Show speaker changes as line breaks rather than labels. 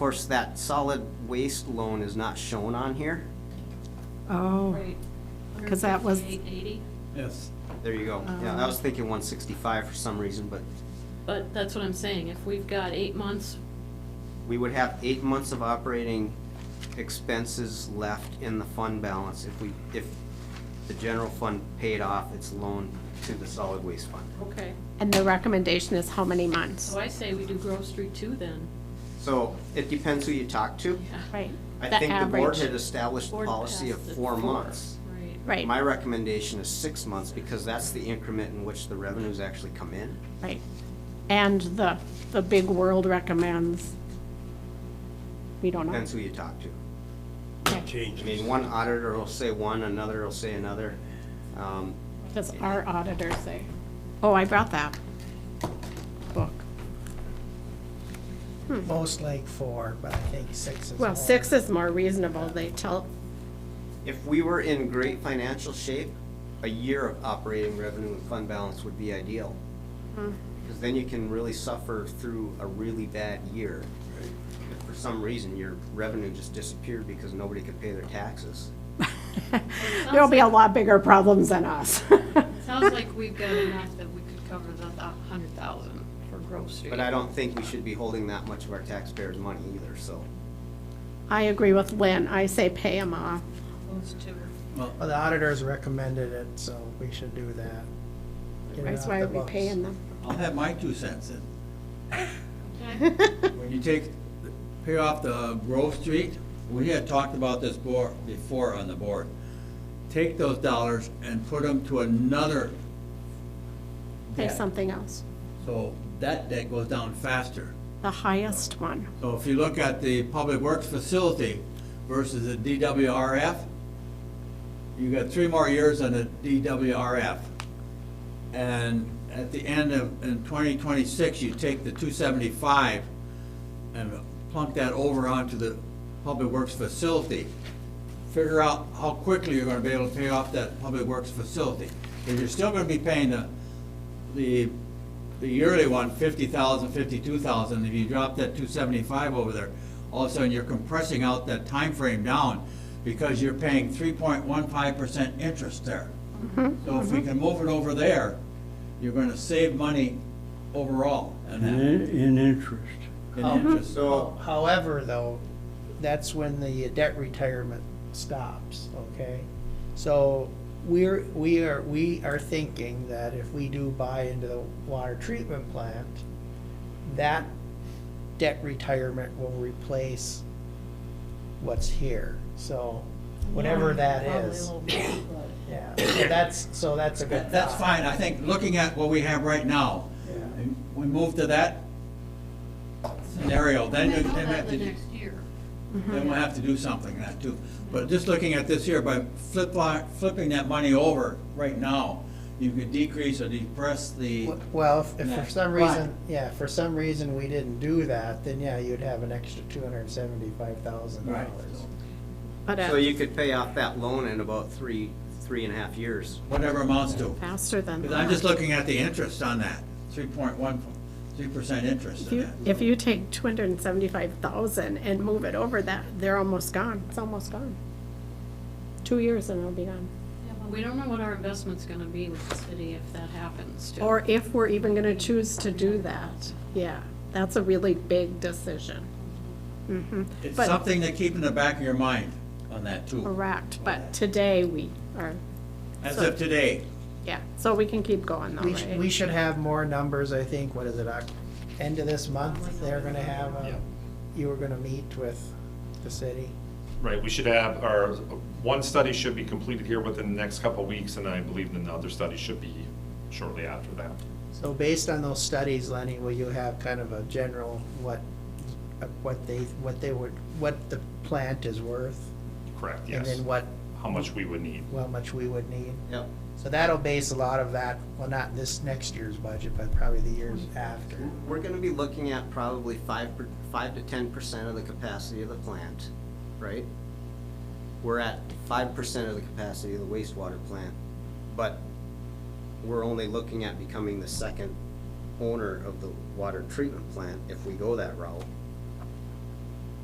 course, that solid waste loan is not shown on here.
Oh,
Right.
'Cause that was-
158.80.
Yes.
There you go. Yeah, I was thinking one sixty-five for some reason, but
but that's what I'm saying, if we've got eight months,
we would have eight months of operating expenses left in the fund balance if we, if the general fund paid off its loan to the solid waste fund.
okay,
and the recommendation is how many months?
so I say we do Grove Street two then.
So it depends who you talk to.
Right.
I
The
think the board
average.
had established a
Board
policy of
passed it
four months.
Right.
Right,
My recommendation is six months because that's the increment in which the revenues actually come in.
right. And the, the big world recommends. We don't know.
Depends who you talk to.
Okay,
I mean, one auditor will say one, another will say another. Um,
Does our auditor say? Oh, I brought that book.
Most like four, but I think six is.
Well,
more.
six is more reasonable. They tell,
If we were in great financial shape, a year of operating revenue and fund balance would be ideal.
Mm-hmm.
Because then you can really suffer through a really bad year. If for some reason your revenue just disappeared because nobody could pay their taxes.
there'll be a lot bigger problems than us.
Sounds like we've got enough that we could cover the hundred thousand for Grove Street.
But I don't think we should be holding that much of our taxpayers' money either, so.
I agree with Lynn. I say pay them off.
Those two.
Well, the auditors recommended it, so we should do that. Get it
That's
off
why
the
we're
books.
paying them.
I'll have my two cents in.
Okay.
When you take, pay off the Grove Street, we had talked about this board, before on the board. Take those dollars and put them to another
Pay
debt.
something else.
So that debt goes down faster.
The highest one.
So if you look at the public works facility versus the DWRF, you got three more years on the DWRF. And at the end of, in twenty twenty-six, you take the two seventy-five and plunk that over onto the public works facility. Figure out how quickly you're gonna be able to pay off that public works facility. If you're still gonna be paying the, the, the yearly one, fifty thousand, fifty-two thousand, if you drop that two seventy-five over there, all of a sudden you're compressing out that time frame down because you're paying three point one five percent interest there. So if we can move it over there, you're gonna save money overall in
And
that,
in, in interest.
in interest.
So,
However, though, that's when the debt retirement stops, okay? So we're, we are, we are thinking that if we do buy into the water treatment plant, that debt retirement will replace what's here, so whatever that is. Yeah, so that's, so that's a good
That- That's
thought.
fine, I think, looking at what we have right now,
Yeah.
and we move to that scenario, then
And
you,
then
then we have
the
to. do-
next Mm-hmm. year.
then we'll have to do something that too. But just looking at this here, by flip, flipping that money over right now, you could decrease or depress the,
W- Well, if- if for some
Right.
reason, yeah, if for some reason we didn't do that, then yeah, you'd have an extra two hundred and seventy-five thousand
Right.
dollars.
But
so
uh,
you could pay off that loan in about three, three and a half years.
whatever amounts to.
faster than
Because I'm
that.
just looking at the interest on that, three point one, three percent interest
If
on
you,
that.
if you take two hundred and seventy-five thousand and move it over that, they're almost gone. It's almost gone. Two years and it'll be gone.
Yeah, but We don't know what our investment's gonna be with the city if that happens too.
Or if we're even gonna choose to do that. Yeah, that's a really big decision. Mm-hmm.
It's
but-
something to keep in the back of your mind on that too,
Correct, but today we are,
as of today.
yeah, so we can keep going though,
We should, we
right?
should have more numbers, I think, what is it, Oc- end of this month, they're gonna have, a- you were gonna meet with the city.
Right, we should have, our, one study should be completed here within the next couple of weeks, and I believe another study should be shortly after that.
So based on those studies, Lenny, will you have kind of a general, what, uh, what they, what they would, what the plant is worth?
Correct,
And
yes.
then what,
How much we would need.
how much we would need?
Yep.
So that'll base a lot of that, well, not this next year's budget, but probably the years after.
We're gonna be looking at probably five, per- five to ten percent of the capacity of the plant, right? We're at five percent of the capacity of the wastewater plant, but we're only looking at becoming the second owner of the water treatment plant if we go that route.